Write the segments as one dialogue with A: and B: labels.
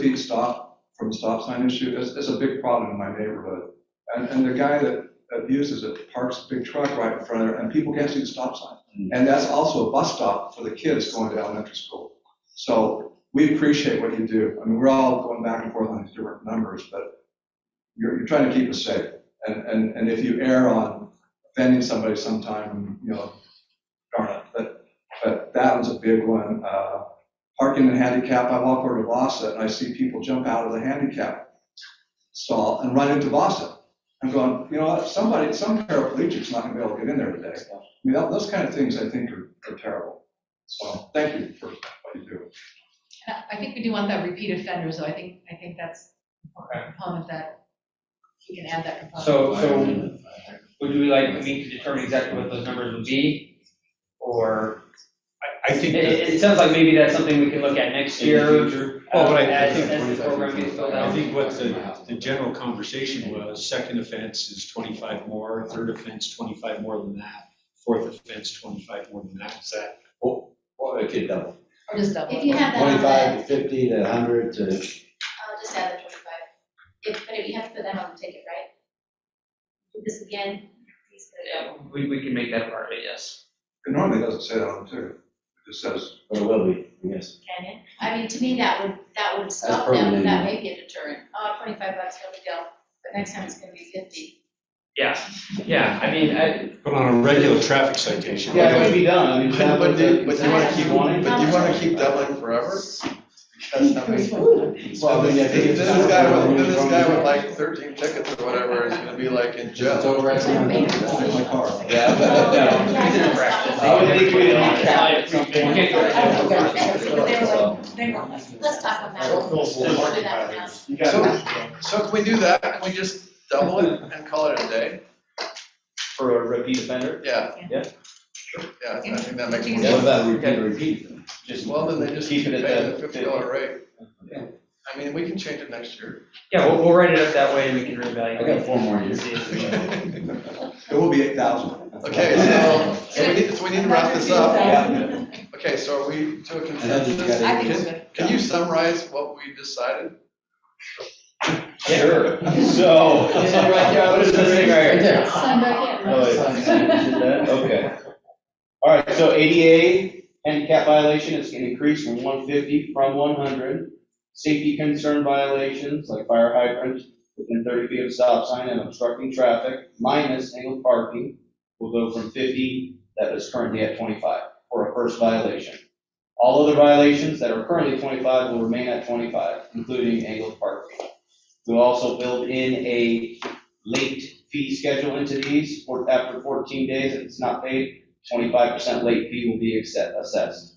A: feet stop from stop sign issue is, is a big problem in my neighborhood. And, and the guy that abuses it parks a big truck right in front of it, and people can't see the stop sign. And that's also a bus stop for the kids going to elementary school. So we appreciate what you do. I mean, we're all going back and forth on these different numbers, but you're, you're trying to keep us safe. And, and, and if you err on offending somebody sometime, you know, darn it. But, but that was a big one. Uh, parking and handicap, I walk over to Vasa and I see people jump out of the handicap stall and run into Vasa. I'm going, you know, what? somebody, some paraplegic's not gonna be able to get in there today. I mean, that- those kind of things I think are, are terrible. So thank you for what you do.
B: And I- I think we do want that repeat offenders, though, I think, I think that's a
C: Okay.
B: component that, we can add that component.
C: So, so would we like to meet to determine exactly what those numbers would be? Or,
D: I
C: it,
D: think that,
C: it it sounds like maybe that's something we can look at next year.
D: Well, but I- I
C: As,
D: think-
C: as the program gets filled
D: I
C: out.
D: think what the, the general conversation was, second offense is twenty-five more, third offense twenty-five more than that, fourth offense twenty-five more than that, is that?
E: Or it could double,
B: Or just double.
F: If you have that on
E: twenty-five
F: the,
E: to fifty to hundred to,
F: I'll just add the twenty-five. If, but if you have to put that on the ticket, right? Do this again, please put it
C: Yeah, we, we can make that part of it, yes.
A: It normally doesn't say that on the ticket. It just says,
E: or will be, I guess.
F: on, can it? I mean, to me, that would, that would stop them,
E: permanent.
F: and that may be a deterrent. Oh, twenty-five bucks, no big deal, but next time it's gonna be fifty.
C: Yeah, yeah, I mean, I.
D: But on a regular traffic citation. we don't-
C: be done, I
G: But do, but you wanna keep,
F: wanting?
G: but you wanna keep doubling forever? That's not makes
E: Well,
G: Well,
E: I
G: then
E: mean, I think
G: this
E: it's-
G: guy with, then this guy with like thirteen tickets or whatever is gonna be like in
E: It's
G: jail.
E: over at some-
A: that's in my car.
G: Yeah,
F: but-
C: No,
F: Yeah,
C: he's in a
F: it's
C: practice.
F: not-
E: I would think
F: we'd
C: Yeah.
F: have
C: We can't go
F: I
C: back.
E: So,
F: Let's talk on that.
G: Don't feel
F: Let's
G: forlorn
F: do that one now.
G: So, so can we do that? Can we just double it and call it a day?
H: for a repeat offender,
G: Yeah.
H: Yeah.
G: Yeah, I think that makes more
E: What
G: sense.
E: about repeat, repeat?
H: just.
G: Well, then they just keep
H: Keep
G: paying
H: it at
G: the
H: that
G: fifty
H: 50.
G: dollar rate. I mean, we can change it next year.
C: Yeah, we'll, we'll write it up that way and we can
E: I got
C: reevaluate.
E: four more years.
A: it will be eight thousand.
G: Okay, so, so we need, so we need to wrap this up. Okay, so are we to a consensus?
B: I think it's good.
G: Can you summarize what we decided?
H: Sure, so.
C: This is right there,
H: What is this thing right here?
F: Sign back in, right?
H: Oh, it's- Okay. All right, so ADA handicap violation is gonna increase from one fifty from one hundred. Safety concern violations like fire hydrants within thirty feet of stop sign and obstructing traffic minus angled parking will go from fifty, that is currently at twenty-five for a first violation. All other violations that are currently twenty-five will remain at twenty-five, including angled parking. We'll also build in a late fee schedule into these, for, after fourteen days, if it's not paid, twenty-five percent late fee will be accept, assessed.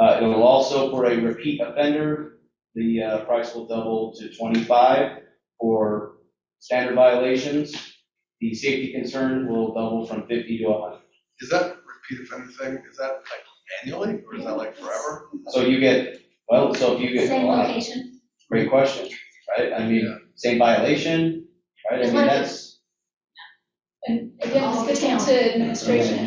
H: Uh, it will also, for a repeat offender, the, uh, price will double to twenty-five for standard violations. The safety concern will double from fifty to hundred.
G: Is that repeat offender thing, is that like annually or is that like forever?
H: So you get, well, so if you get,
F: Same
H: wow,
F: location,
H: great question, right? I mean, same violation, right? I
F: It's
H: mean,
F: like-
H: that's,
I: And again,
F: All
I: this gets
F: the
I: down to administration,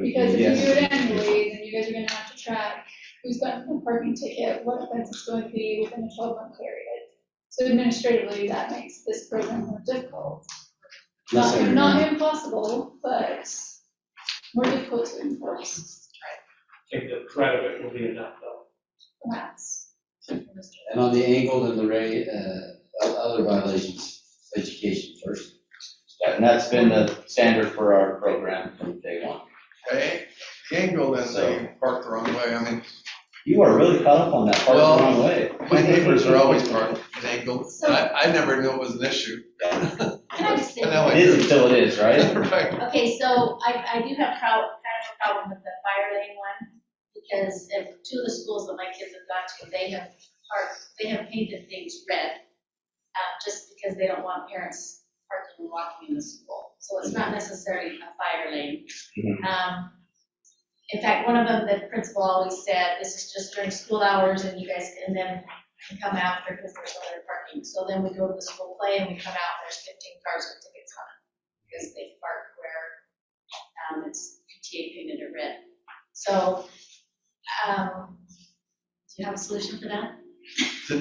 I: because if
H: Yes.
I: you do it annually, then you guys are gonna have to track who's gotten a parking ticket, what offense it's going to be within a twelve month period. So administratively, that makes this program more difficult. Not, not impossible, but more difficult to enforce,
J: think the threat of it will be enough, though.
I: perhaps.
E: And on the angled and the ray, uh, o- other violations, education first.
H: and that's been the standard for our program from day one.
G: Okay, the angle is that you park the wrong way, I mean,
H: You are really caught up on that part
G: Well,
H: the wrong way.
G: my neighbors are always parked at angle, and I, I never knew it was an issue.
F: can I just say?
G: And now I
H: It is until it is, right?
G: Right,
F: Okay, so I, I do have prob, kind of a problem with the fire lane one, because if two of the schools that my kids have gone to, they have parked, they have painted things red, uh, just because they don't want parents parking and walking in the school, so it's not necessarily a fire lane. Um, in fact, one of them, the principal always said, this is just during school hours, and you guys, can then can come after, because there's other parking, so then we go to the school play, and we come out, and there's fifteen cars with tickets on it because they park where, um, it's PTA painted or red. So, um, do you have a solution for that?